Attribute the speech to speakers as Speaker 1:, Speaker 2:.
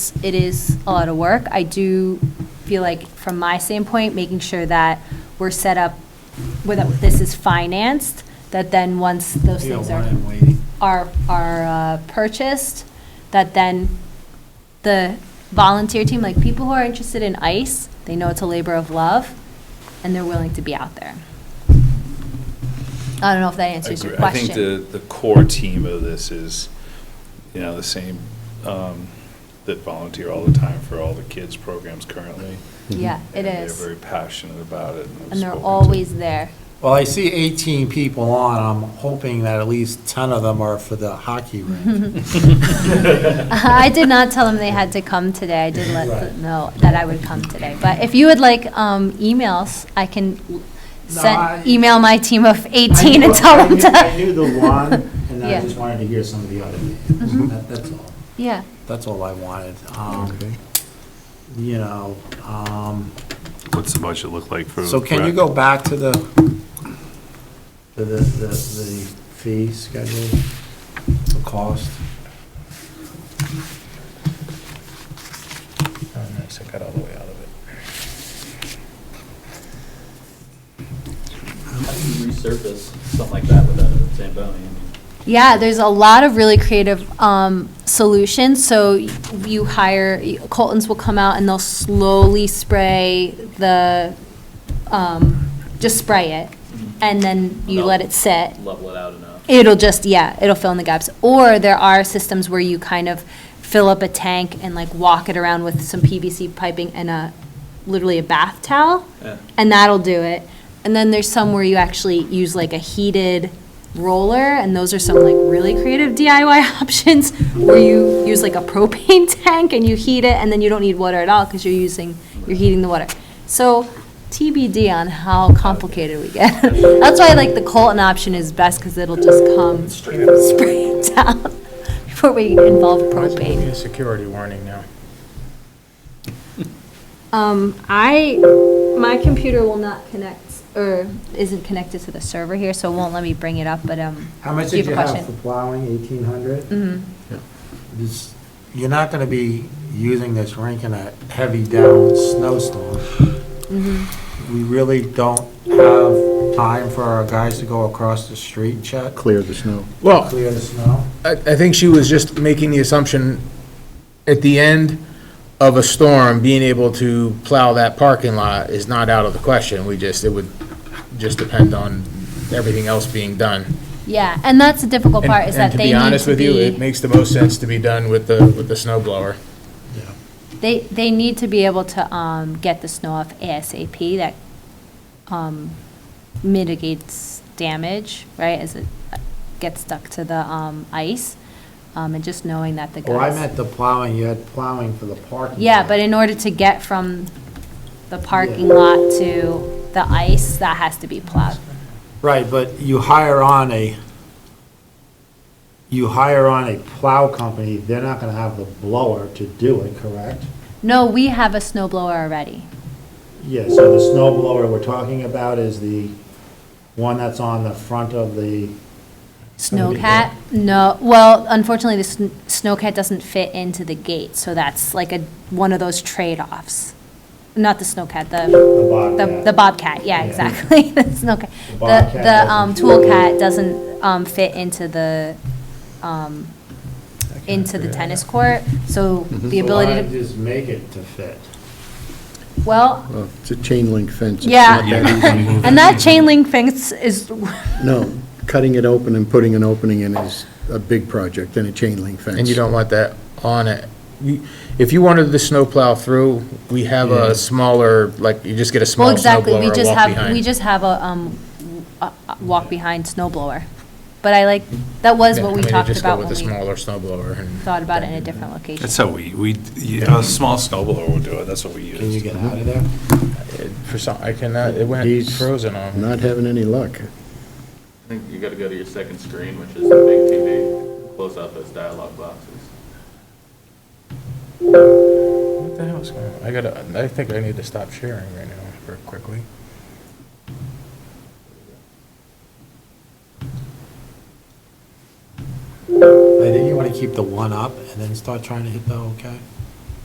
Speaker 1: it is a lot of work. I do feel like, from my standpoint, making sure that we're set up, whether this is financed, that then once those
Speaker 2: You
Speaker 1: things
Speaker 2: don't
Speaker 1: are,
Speaker 2: want it waiting.
Speaker 1: are, are uh, purchased, that then the volunteer team, like people who are interested in ICE, they know it's a labor of love, and they're willing to be out there. I don't know if that answers your
Speaker 3: agree. I
Speaker 1: question.
Speaker 3: think the, the core team of this is, you know, the same, um, that volunteer all the time for all the kids' programs currently.
Speaker 1: Yeah, it
Speaker 3: And
Speaker 1: is.
Speaker 3: They're very passionate about it.
Speaker 1: And
Speaker 3: I've
Speaker 1: they're
Speaker 3: spoken to-
Speaker 1: always there.
Speaker 2: Well, I see 18 people on, I'm hoping that at least 10 of them are for the hockey rink.
Speaker 1: Uh, I did not tell them they had to come today. I did let them know that I would come today. But if you would like um, emails, I can l-
Speaker 2: No,
Speaker 1: send,
Speaker 2: I-
Speaker 1: email my team of 18 and tell them
Speaker 2: I
Speaker 1: to.
Speaker 2: knew the one, and
Speaker 1: Yeah. Mm-hmm.
Speaker 2: I just wanted to hear some of the other names. That- That's all.
Speaker 1: Yeah,
Speaker 2: That's all I wanted. Um, You know, um,
Speaker 4: What's the budget look like for?
Speaker 2: so can you
Speaker 4: rec?
Speaker 2: go back to the, to the, the the fee schedule, the cost?
Speaker 3: Oh, nice, I got all the way out of it.
Speaker 5: How do you Um, resurface something like that without a Zamboni? I mean,
Speaker 1: yeah, there's a lot of really creative um, solutions. So y- you hire, Colton's will come out and they'll slowly spray the, um, just spray it. And then you let it sit.
Speaker 5: Level it out enough.
Speaker 1: It'll just, yeah, it'll fill in the gaps. Or there are systems where you kind of fill up a tank and like walk it around with some PVC piping and a, literally a bath towel,
Speaker 5: Yeah.
Speaker 1: and that'll do it. And then there's some where you actually use like a heated roller, and those are some like really creative DIY options where you use like a propane tank and you heat it, and then you don't need water at all because you're using, you're heating the water. So TBD on how complicated we get. That's why like the Colton option is best because it'll just come
Speaker 6: Straight up.
Speaker 1: spray it down before we involve propane.
Speaker 6: a security warning now.
Speaker 1: Um, I, my computer will not connect, or isn't connected to the server here, so it won't let me bring it up, but, um.
Speaker 2: How much
Speaker 1: do
Speaker 2: did you
Speaker 1: have a
Speaker 2: have for
Speaker 1: question?
Speaker 2: plowing, 1,800?
Speaker 1: Mhm.
Speaker 2: This- You're not going to be using this rink in a heavy down snowstorm.
Speaker 1: Mm-hmm.
Speaker 2: We really don't have time for our guys to go across the street, Chuck,
Speaker 7: clear the snow.
Speaker 6: Well,
Speaker 2: clear the snow.
Speaker 6: I, I think she was just making the assumption, at the end of a storm, being able to plow that parking lot is not out of the question. We just, it would just depend on everything else being done.
Speaker 1: Yeah, and that's the difficult
Speaker 6: And-
Speaker 1: part, is that they
Speaker 6: And to be
Speaker 1: need
Speaker 6: honest
Speaker 1: to
Speaker 6: with you, it
Speaker 1: be,
Speaker 6: makes the most sense to be done with the, with the snow blower.
Speaker 1: they, they need to be able to, um, get the snow off ASAP, that, um, mitigates damage, right, as it gets stuck to the, um, ice, um, and just knowing that the guys.
Speaker 2: Well, Oh, I meant the plowing, you had plowing for the parking.
Speaker 1: Yeah,
Speaker 2: lot.
Speaker 1: but in order to get from the parking lot to the ice, that has to be plowed.
Speaker 2: Right, but you hire on a, you hire on a plow company, they're not going to have the blower to do it, correct?
Speaker 1: No, we have a snow blower already.
Speaker 2: Yeah, so the snow blower we're talking about is the one that's on the front of the,
Speaker 1: Snowcat? No, well, unfortunately, the sn- snowcat doesn't fit into the gate, so that's like a, one of those trade-offs. Not the snowcat, the,
Speaker 2: the
Speaker 1: the
Speaker 2: Bobcat.
Speaker 1: the bobcat, yeah,
Speaker 2: Yeah.
Speaker 1: exactly, the snowcat.
Speaker 2: The
Speaker 1: The,
Speaker 2: Bobcat
Speaker 1: the, um,
Speaker 2: doesn't-
Speaker 1: toolcat doesn't, um, fit into the, um, into the tennis court, so the
Speaker 2: So why
Speaker 1: ability
Speaker 2: don't
Speaker 1: to,
Speaker 2: you just make it to fit?
Speaker 1: well,
Speaker 7: Well, It's a chain link fence. It's
Speaker 1: Yeah.
Speaker 7: not that
Speaker 1: And that chain link fence is,
Speaker 7: easy. No, cutting it open and putting an opening in is a big project than a chain link fence.
Speaker 6: And you don't want that on it. You- If you wanted the snow plow through, we have a smaller, like, you just get a
Speaker 1: well,
Speaker 6: small snow
Speaker 1: exactly,
Speaker 6: blower
Speaker 1: we
Speaker 6: and
Speaker 1: just
Speaker 6: walk
Speaker 1: have, we
Speaker 6: behind.
Speaker 1: just have a, um, a- a walk behind snow blower. But I like, that was
Speaker 6: Yeah,
Speaker 1: what
Speaker 6: I
Speaker 1: we
Speaker 6: mean, you
Speaker 1: talked
Speaker 6: just go
Speaker 1: about when
Speaker 6: with a
Speaker 1: we
Speaker 6: smaller snow blower and.
Speaker 1: thought about it in a different location.
Speaker 3: That's how we, we, you know, a small snowblower will do it, that's what we use.
Speaker 2: Can you get out of there?
Speaker 6: It- For some, I cannot, it went
Speaker 7: He's
Speaker 6: frozen on. me.
Speaker 7: Not having any luck.
Speaker 5: I think you gotta go to your second screen, which is the big TV, close out those dialogue boxes.
Speaker 6: What the hell is going on? I gotta, I think I need to stop sharing right now, very quickly.
Speaker 2: I think you want to keep the one up and then start trying to hit the okay.